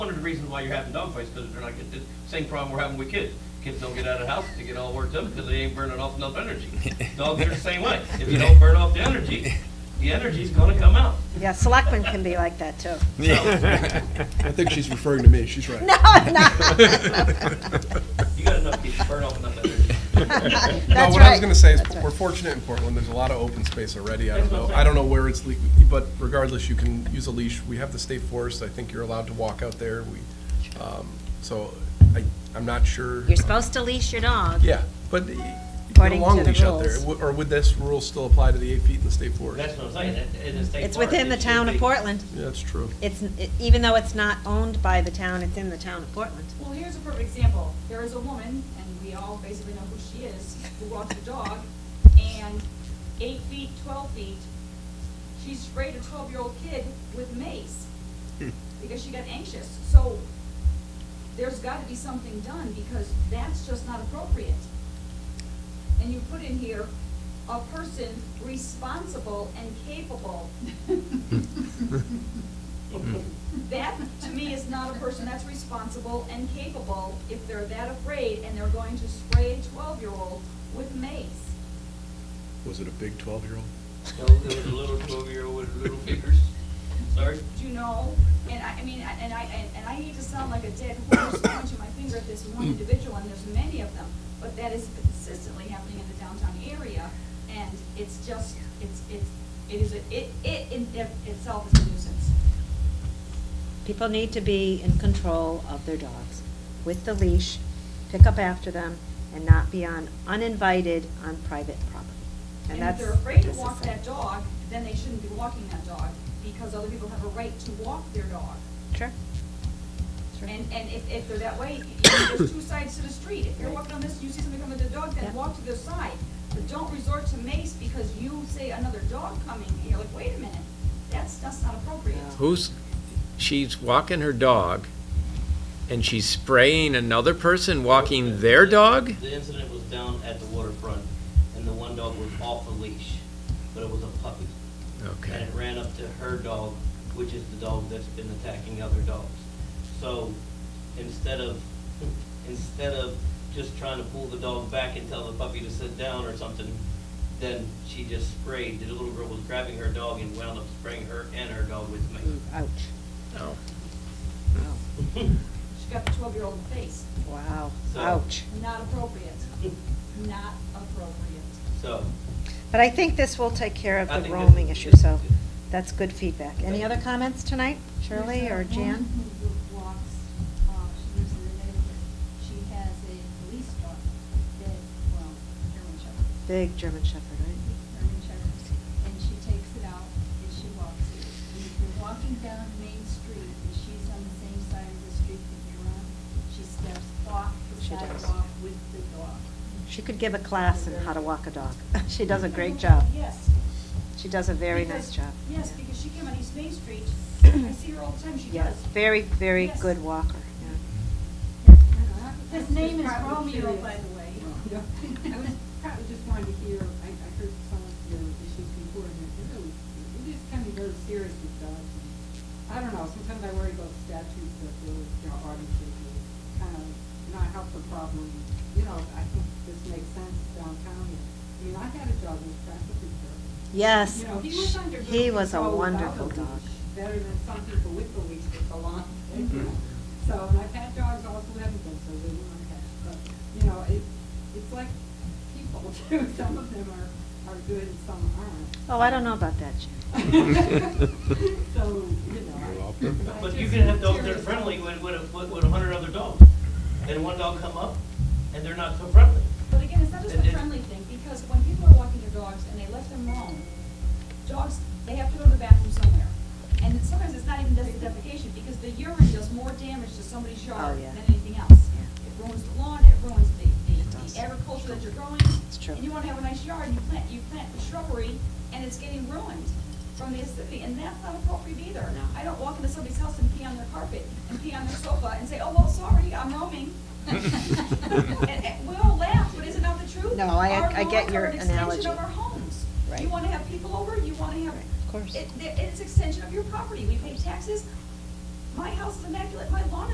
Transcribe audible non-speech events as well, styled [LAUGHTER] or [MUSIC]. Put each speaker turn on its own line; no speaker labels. of the reasons why you having dog fights, because they're not getting, this same problem we're having with kids. Kids don't get out of the house, they get all worked up because they ain't burning off enough energy. Dogs are the same way. If you don't burn off the energy, the energy's gonna come out.
Yeah, selectmen can be like that, too.
I think she's referring to me, she's right.
[LAUGHS] No, I'm not.
You got enough kids, burn off enough energy.
No,
That's
what I was
right.
gonna say is,
That's right.
we're fortunate in Portland, there's a lot of open space already, I
That's
don't
what I'm
know,
saying.
I don't know where it's, le- but regardless, you can use a leash, we have the state forest, I think you're allowed to walk out there, we, um, so, I, I'm not sure.
You're supposed to leash your dog.
Yeah, but you get a
According
long
to the
leash out there,
rules.
Would- or would this rule still apply to the eight feet in the state forest?
That's what I'm saying, that- in the state.
It's
park,
within
it
the
should
town of
be- [LAUGHS]
Portland.
Yeah, that's true.
It's, even though it's not owned by the town, it's in the town of Portland.
Well, here's a perfect example. There is a woman, and we all basically know who she is, who walks a dog, and eight feet, twelve feet, she sprayed a twelve-year-old kid with mace because she got anxious. So there's gotta be something done because that's just not appropriate. And you put in here, a person responsible and capable. That, to me, is not a person that's responsible and capable if they're that afraid and they're going to spray a twelve-year-old with mace.
Was it a big twelve-year-old?
No, there was a little twelve-year-old with little fingers, sorry.
Do you know? And I, I mean, I- and I, and- and I hate to sound like a dead horse [COUGHS] pointing my finger at this one individual, and there's many of them, but that is consistently happening in the downtown area, and it's just, it's, it's, it is, a- it, it in itself is a nuisance.
People need to be in control of their dogs with the leash, pick up after them, and not be on uninvited on private property. And
And if
that's.
they're afraid to
that's the
walk
thing.
that dog, then they shouldn't be walking that dog, because other people have a right to walk their dog.
Sure. Sure.
And, and if, if they're that way, you know, there's two sides to the street. If you're walking on this, you see somebody coming with a dog,
Yeah.
then walk to their side. But don't resort to mace because you say another dog coming, and you're like, wait a minute, that's, that's not appropriate.
Who's, she's walking her dog, and she's spraying another person walking their dog?
The incident was down at the waterfront, and the one dog was off a leash, but it was a puppy. And
Okay.
it ran up to her dog, which is the dog that's been attacking other dogs. So instead of, [LAUGHS] instead of just trying to pull the dog back and tell the puppy to sit down or something, then she just sprayed. The little girl was grabbing her dog and wound up spraying her and her dog with
Ooh,
mace.
Ouch.
Oh.
No.
Wow.
She got the twelve-year-old in the face.
Wow,
So-
ouch.
Not appropriate. Not
[LAUGHS]
appropriate.
So,
But I think this will take care of
I
the
think this-
roaming issue, so that's good feedback.
Thank
Any other
you.
comments tonight, Shirley
There's a
or Jan?
woman who walks, uh, she lives in the neighborhood. She has a police dog that, well, German Shepherd,
Big German Shepherd, right?
German Shepherd, and she takes it out and she walks it. And if you're walking down Main Street and she's on the same side of the street that you're on, she steps off the
She does.
sidewalk with the dog.
She could give a class in how to walk a dog. [LAUGHS] She does a great job.
Yes.
She does a very
because-
nice job.
Yes,
Yeah.
because she came on East
[COUGHS]
Main Street. I see her all the time. She
Yes,
does.
very, very
Yes.
good walker, yeah.
His name is Romeo, by [LAUGHS] the way.
Yeah, I was probably just wanted to hear, I, I heard some of your issues before, and it really, it is kind of very serious with dogs. and I don't know, sometimes I worry about statutes that really, you know, artists kind of not help the problem. You know, I think this makes sense downtown. I mean, I had a dog who was practically perfect.
Yes.
You know, he was under good
He was a
control without
wonderful
the
dog.
leash, Better than some people with the leash that go on. So, and I've had dogs also who haven't been so good, and I've had, but, you know, it, it's like people [LAUGHS] too, some of them are, are good and some aren't.
Oh, I don't know about that, Jan.
So, you know. I- I
but you
just-
can have dogs that are friendly with, with, a- with- with a hundred other dogs. And one dog come up, and they're not so friendly.
But again, it's not just
And
a
it-
friendly thing, because when people are walking their dogs and they let them roam, dogs, they have to go to the bathroom somewhere. And it's- sometimes it's not even just defecation, because the urine does more damage to somebody's yard
Oh, yeah.
than anything else.
Yeah.
It ruins the lawn, it ruins the,
It
the-
does.
the agriculture that you're growing.
It's true.
And you wanna have a nice yard, and you plant, you plant the shrubbery, and it's getting ruined from the acidity, and that's not appropriate either.
No.
I don't walk into somebody's house and pee on their carpet, and pee on their sofa, and say, oh, well, sorry, I'm
[LAUGHS]
roaming. [LAUGHS] And- and We all laugh, but is it not the truth?
No, I-
Our
I get
lawns
your
are an
analogy.
extension of our homes.
Right.
You want to have people over, you want to have.
Right, of course.
It, it- it's extension of your property. We pay taxes. my house is immaculate, my lawn is